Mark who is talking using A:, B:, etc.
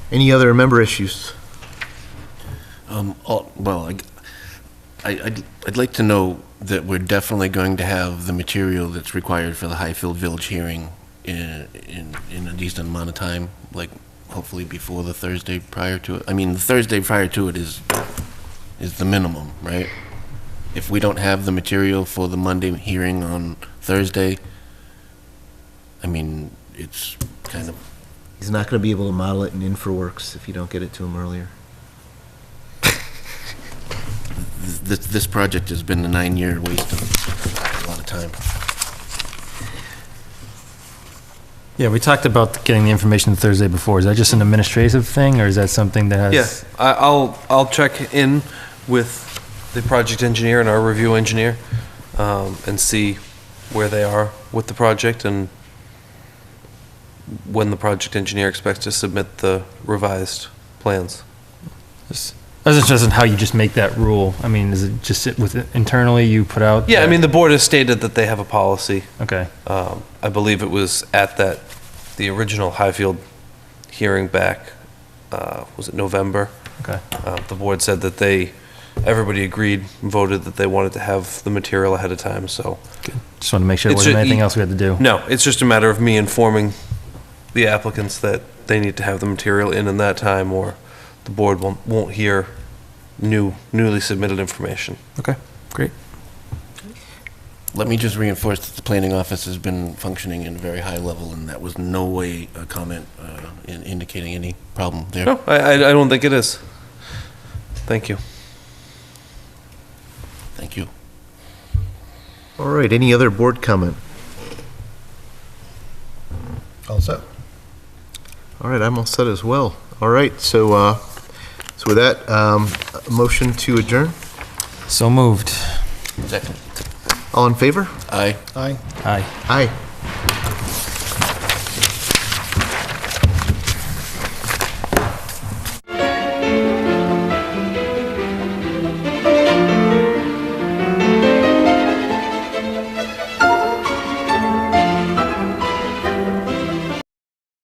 A: Any other member issues?
B: Um, oh, well, I, I- I'd, I'd like to know that we're definitely going to have the material that's required for the Highfield Village hearing in, in, in a decent amount of time, like hopefully before the Thursday prior to it. I mean, the Thursday prior to it is, is the minimum, right? If we don't have the material for the Monday hearing on Thursday, I mean, it's kind of,
A: He's not going to be able to model it in InfraWorks if you don't get it to him earlier.
B: this, this project has been a nine-year waste of a lot of time.
C: Yeah, we talked about getting the information Thursday before. Is that just an administrative thing, or is that something that
D: Yeah,
C: has?
D: I- I'll, I'll check in with the project engineer and our review engineer um, and see where they are with the project and when the project engineer expects to submit the revised plans.
C: I was interested in how you just make that rule. I mean, is it just sit with internally you put out?
D: Yeah, I
C: that-
D: mean, the board has stated that they have a policy.
C: Okay,
D: Um, I believe it was at that, the original Highfield hearing back, uh, was it November?
C: okay.
D: Uh, The board said that they, everybody agreed, voted that they wanted to have the material ahead of time, so.
C: Just wanted to make sure there
D: It's
C: wasn't
D: a-
C: anything else we had to do.
D: No, it's just a matter of me informing the applicants that they need to have the material in in that time, or the board won't, won't hear new, newly submitted information.
C: Okay, great.
B: Let me just reinforce that the planning office has been functioning in a very high level, and that was no way a comment uh, in- indicating any problem there.
D: No, I, I I don't think it is. Thank you.
B: Thank you.
A: All right, any other board comment?
E: Also,
A: All right, I'm all set as well. All right, so, uh, so with that, um, a motion to adjourn.
C: So moved.
B: Second.
A: All in favor?
B: Aye.
E: Aye.
C: Aye.
A: Aye.